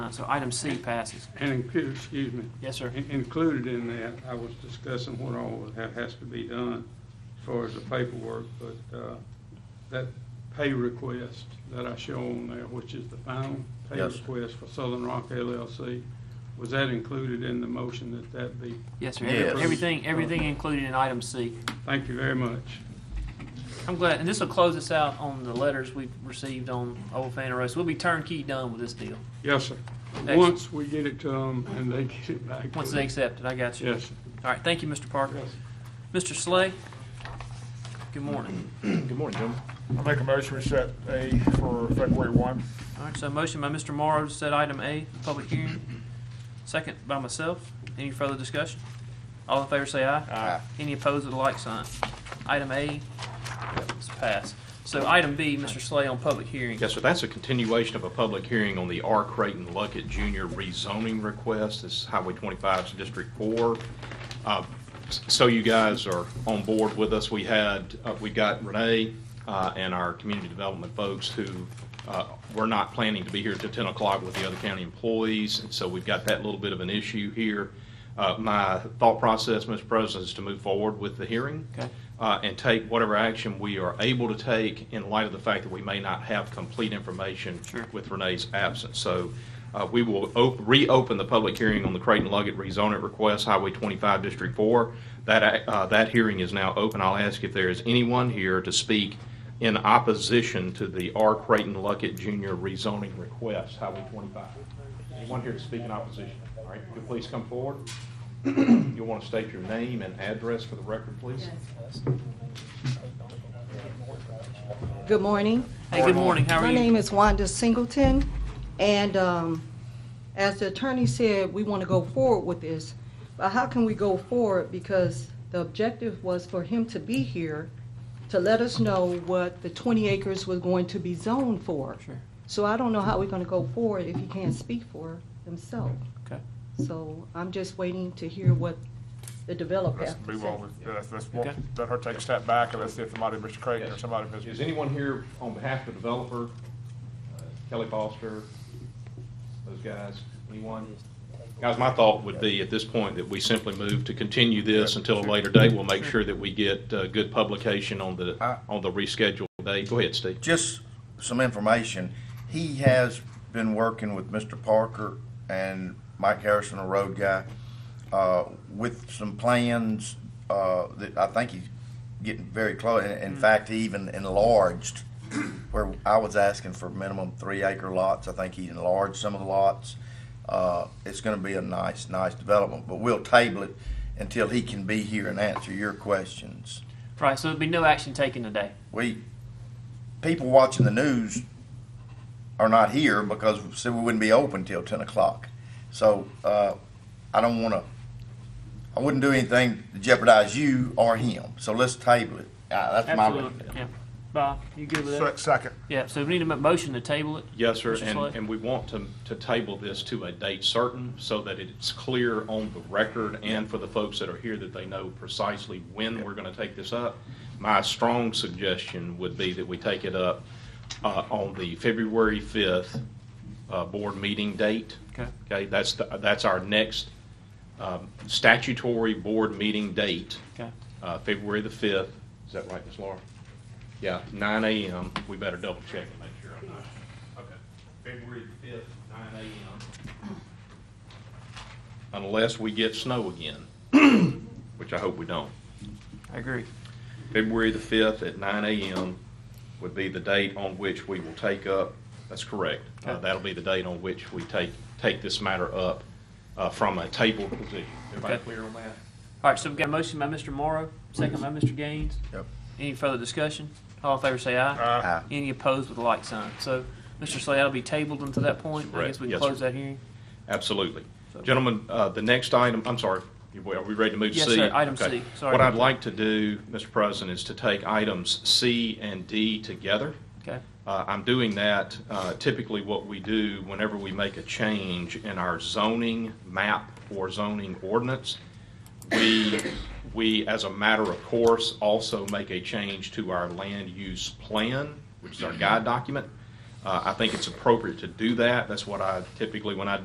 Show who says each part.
Speaker 1: none, Uh, so item C passes.
Speaker 2: And include, excuse me,
Speaker 1: Yes, sir.
Speaker 2: in- included in that, I was discussing what all that has to be done as far as the paperwork, but uh, that pay request that I show on there, which is the final pay
Speaker 3: Yes.
Speaker 2: request for Southern Rock LLC, was that included in the motion that that be?
Speaker 1: Yes, sir.
Speaker 3: Yes.
Speaker 1: Everything, everything included in item C.
Speaker 2: Thank you very much.
Speaker 1: I'm glad, and this will close us out on the letters we've received on Old Fannin Road. So we'll be turnkey done with this deal,
Speaker 2: Yes, sir.
Speaker 1: Excellent.
Speaker 2: Once we get it to them and they get it back to us.
Speaker 1: once they accept it. I got you.
Speaker 2: Yes, sir.
Speaker 1: All right, thank you, Mr. Parker.
Speaker 2: Yes, sir.
Speaker 1: Mr. Slay, good morning.
Speaker 4: Good morning, gentlemen. I make a motion, we set A for February 1.
Speaker 1: All right, so motion by Mr. Morrow to set item A, public hearing. Second by myself. Any further discussion? All in favor say aye.
Speaker 3: Uh,
Speaker 1: Aye. Any opposed with a like sign. Item A is passed. So item B, Mr. Slay on public hearing.
Speaker 3: Yes, sir, that's a continuation of a public hearing on the R. Creighton Luckett Jr. rezoning request. This is Highway 25's District 4. Uh, s- So you guys are on board with us. We had, uh, we got Renee uh, and our community development folks who uh, were not planning to be here till 10 o'clock with the other county employees, and so we've got that little bit of an issue here. Uh, My thought process, Mr. President, is to move forward with the hearing
Speaker 1: Okay.
Speaker 3: uh, and take whatever action we are able to take in light of the fact that we may not have complete information
Speaker 1: Sure.
Speaker 3: with Renee's absence. So uh, we will op- reopen the public hearing on the Creighton Luggett rezoning request, Highway 25, District 4. That, ac- uh, that hearing is now open. I'll ask if there is anyone here to speak in opposition to the R. Creighton Luckett Jr. rezoning request, Highway 25. Anyone here to speak in opposition? All right, could you please come forward? You'll want to state your name and address for the record, please.
Speaker 5: Good morning.
Speaker 1: Hey, good morning. How are
Speaker 5: My
Speaker 1: you?
Speaker 5: name is Wanda Singleton, and um, as the attorney said, we want to go forward with this. But how can we go forward? Because the objective was for him to be here to let us know what the 20 acres was going to be zoned for.
Speaker 1: Sure.
Speaker 5: So I don't know how we're going to go forward if he can't speak for himself.
Speaker 1: Okay.
Speaker 5: So I'm just waiting to hear what the developer
Speaker 4: Let's
Speaker 5: has to
Speaker 4: move
Speaker 5: say.
Speaker 4: on, with- let's, let's walk,
Speaker 1: Okay.
Speaker 4: let her take a step back, and let's see if somebody, Mr. Creighton or
Speaker 3: Yes.
Speaker 4: somebody,
Speaker 3: Is
Speaker 4: Mr.
Speaker 3: anyone here on behalf of the developer, uh, Kelly Foster, those guys, anyone? Guys, my thought would be at this point that we simply move to continue this until a later date. We'll make sure that we get uh, good publication on the,
Speaker 6: I-
Speaker 3: on the rescheduled date. Go ahead, Steve.
Speaker 6: just some information. He has been working with Mr. Parker and Mike Harrison, a road guy, uh, with some plans, uh, that I think he's getting very close. In, in fact, he even enlarged where I was asking for minimum three acre lots. I think he enlarged some of the lots. Uh, it's gonna be a nice, nice development, but we'll table it until he can be here and answer your questions.
Speaker 1: Right, so there'll be no action taken today.
Speaker 6: we people watching the news are not here because see, we wouldn't be open till ten o'clock. So uh, I don't want to. I wouldn't do anything to jeopardize you or him. So let's table it. Uh, that's my.
Speaker 1: Yeah. Bob, you good with
Speaker 4: Se-
Speaker 1: that?
Speaker 4: Second.
Speaker 1: Yeah, so we need a motion to table it.
Speaker 3: Yes, sir,
Speaker 1: Mr.
Speaker 3: and,
Speaker 1: Slay?
Speaker 3: and we want to, to table this to a date certain so that it's clear on the record and for the folks that are here that they know precisely when we're going to take this up. My strong suggestion would be that we take it up uh, on the February 5th uh, board meeting date.
Speaker 1: Okay.
Speaker 3: Okay, that's, the- that's our next um, statutory board meeting date,
Speaker 1: Okay.
Speaker 3: uh, February the 5th. Is that right, Ms. Laura? Yeah, 9 a.m. We better double check and make sure I'm not. Okay, February fifth, nine AM. Unless we get snow again, which I hope we don't.
Speaker 1: I agree.
Speaker 3: February the fifth at nine AM would be the date on which we will take up, that's correct. Uh,
Speaker 1: Okay.
Speaker 3: that'll be the date on which we take, take this matter up, uh, from a table position. Everybody
Speaker 1: Okay.
Speaker 3: clear on that?
Speaker 1: All right, so we've got a motion by Mr. Morrow, second by Mr. Gaines.
Speaker 6: Yep.
Speaker 1: Any further discussion? All in favor say aye.
Speaker 4: Uh,
Speaker 6: Aye.
Speaker 1: Any opposed with a like sign. So, Mr. Slay, that'll be tabled until that point. I
Speaker 3: Correct.
Speaker 1: guess we can
Speaker 3: Yes,
Speaker 1: close
Speaker 3: sir.
Speaker 1: that hearing.
Speaker 3: Absolutely.
Speaker 1: So-
Speaker 3: Gentlemen, uh, the next item, I'm sorry, are we ready to move to
Speaker 1: Yes,
Speaker 3: C?
Speaker 1: sir. Item
Speaker 3: Okay.
Speaker 1: C. Sorry.
Speaker 3: What I'd like to do, Mr. President, is to take items C and D together.
Speaker 1: Okay,
Speaker 3: Uh, I'm doing that, uh, typically what we do whenever we make a change in our zoning map or zoning ordinance, we, we, as a matter of course, also make a change to our land use plan, which is our guide document. Uh, I think it's appropriate to do that. That's what I typically, when I